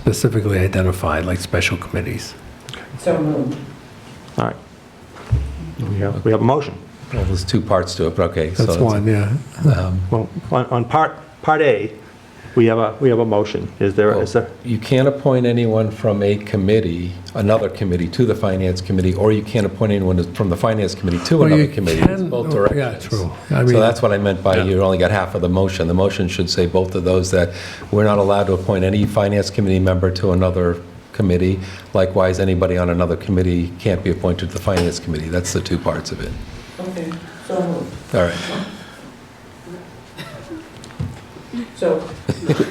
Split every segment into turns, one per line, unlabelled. specifically identified, like special committees.
So moved.
All right. We have, we have a motion.
Well, there's two parts to it, but okay. so
That's
it's-
one, yeah.
Well, on, on part, part A, we have a, we have a motion. Is there, is there,
You can't appoint anyone from a committee, another committee, to the Finance Committee, or you can't appoint anyone from the Finance Committee to
Well, you
another committee. It's
can-
both
oh, yeah,
directions.
true. I mean-
So that's what I meant by you only got half of the motion. The motion should say both of those, that we're not allowed to appoint any Finance Committee member to another committee. Likewise, anybody on another committee can't be appointed to the Finance Committee. That's the two parts of it.
Okay, so moved.
All right.
So,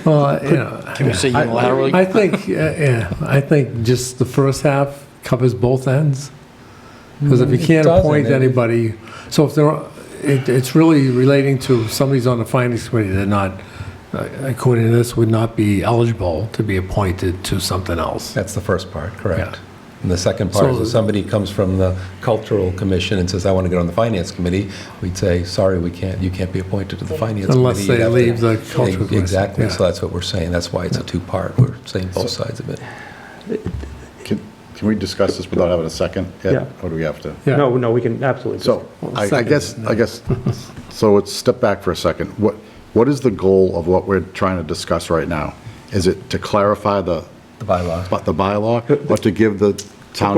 Well, you know.
Can we say
I-
unilaterally?
I think, uh, yeah, I think just the first half covers both ends. Because if you
Mm, it
can't
doesn't.
appoint
It-
anybody, so if there, are- it, it's really relating to somebody's on the finance committee, they're not, uh, according to this, would not be eligible to be appointed to something else.
That's the first part,
Yeah.
correct. And the second part is
So-
if somebody comes from the Cultural Commission and says, I want to get on the Finance Committee, we'd say, sorry, we can't, you can't be appointed to the Finance Committee.
Unless
You'd
they
have to-
leave the cultural. commission.
Exactly,
Yeah.
so that's what we're saying, that's why it's a two-part, we're saying both sides of it.
Can can we discuss this without having a second? Ed?
Yeah.
Or do we have to?
Yeah.
no, no, we can absolutely.
So I I
Second.
guess, I guess, so let's step back for a second. What, what is the goal of what we're trying to discuss right now? Is it to clarify the,
The bylaw.
but the bylaw or to give the town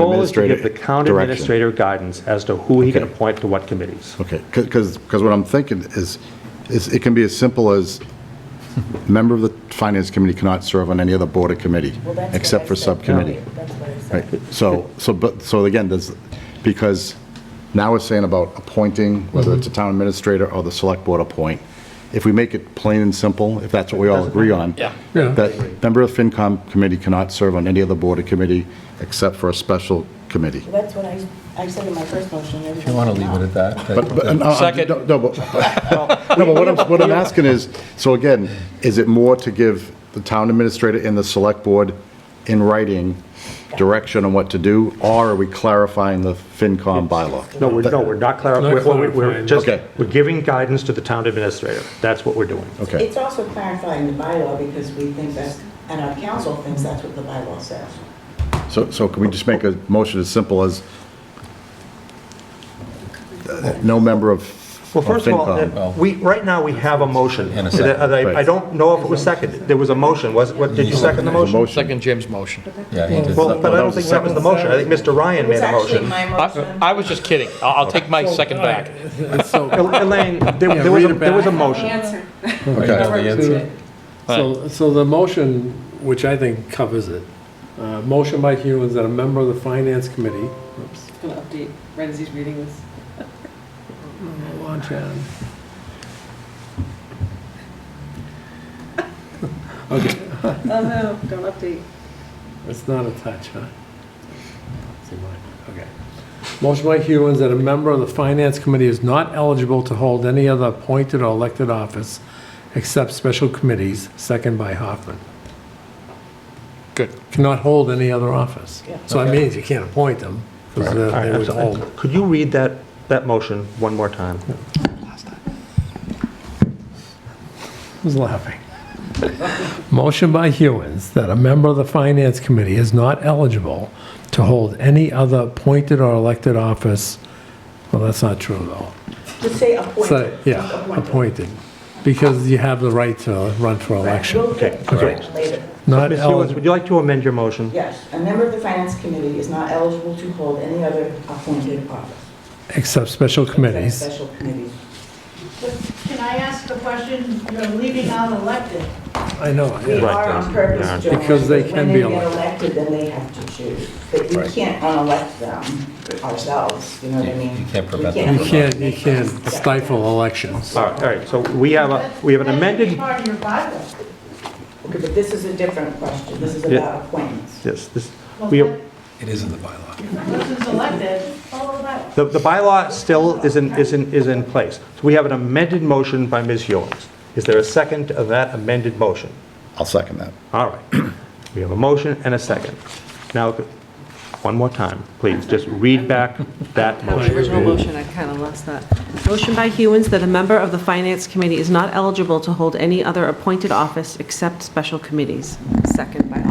The
administrator
goal is to give the town
direction?
administrator guidance as to who he can
Okay.
appoint to what committees.
Okay, because, because what I'm thinking is, is it can be as simple as member of the finance committee cannot serve on any other board or committee
well, that's what
except
I
for
said
subcommittee.
earlier. That's what I
Right,
said.
so, so, but, so again, there's, because now we're saying about appointing, whether it's a town administrator or the select board appoint, if we make it plain and simple, if that's what we all agree on.
Yeah.
Yeah.
That member of FinCom committee cannot serve on any other board or committee except for a special committee.
Well, That's what I, I said in my first motion.
If you want to leave it at that. that-
But, but, uh, no, I'm-
Second.
No, no, but, no, but what I'm, what I'm asking is, so again, is it more to give the town administrator and the select board in writing direction on what to do, or are we clarifying the FinCom bylaw?
No, we're, no, we're not
Not
clarifying, we're, we're
clarifying.
just,
Okay.
we're giving guidance to the town administrator. That's what we're doing.
Okay,
It's also clarifying the bylaw because we think that's, and our council thinks that's what the bylaw says.
so, so can we just make a motion as simple as uh, no member of
Well,
of
first of all,
FinCom?
uh, we, right now, we have a motion.
And a second.
And I I
Right.
don't know if it was seconded. There was a motion. Was, what, did you second the
There's a
motion?
Second Jim's motion.
Yeah, uh, he did.
Well, but I don't think that was the motion. I think Mr. Ryan made a motion.
I I was just kidding. I'll I'll take my second back.
So,
Elaine, there there was, a- there was a motion.
Answer.
Okay,
So, so the motion, which I think covers it, uh, motion by Hewens that a member of the Finance Committee, oops,
Just gonna update right as he's reading this.
hold on, Chad.
Oh no, don't update.
It's not a touch, huh? See mine, okay. Motion by Hewens that a member of the Finance Committee is not eligible to hold any other appointed or elected office except special committees, second by Hoffman.
Good.
Cannot hold any other office.
Yeah.
So that means you can't appoint them, because
All right,
they would
so,
hold.
Could you read that, that motion one more time?
Who's laughing? Motion by Hewens that a member of the Finance Committee is not eligible to hold any other appointed or elected office. Well, that's not true, though.
Just say appointed.
So, yeah, appointed, because you have the right to run for election.
We'll get to that later.
Not
Ms. Hewens,
eligible,
would you like to amend your motion?
Yes, a member of the finance committee is not eligible to hold any other appointed office.
except special committees.
Except Special committees.
But Can I ask a question? You're leaving out elected.
I know,
We
yeah.
are on purpose,
Yeah.
Joanne.
Because they
but
can be
When they get
elected.
elected, then they have to choose. But you can't unelect them ourselves, you know what I
You-
mean?
you can't prevent
We
them
You
from-
can't, you can't stifle elections.
All right, all right, so we have a, we have an
That should be
amended,
Part of your bylaw.
Okay, but this is a different question. This is
Yeah.
about appointments.
yes, this,
Well,
we,
that
have-
It is in the bylaw.
person's elected, follow that.
the, the bylaw still is in, is in, is in place. So we have an amended motion by Ms. Hewens. Is there a second of that amended motion?
I'll second that.
All right, we have a motion and a second. Now, one more time, please, just read back that
Have the
motion.
original motion, I kind of lost that. Motion by Hewens that a member of the Finance Committee is not eligible to hold any other appointed office except special committees. Second by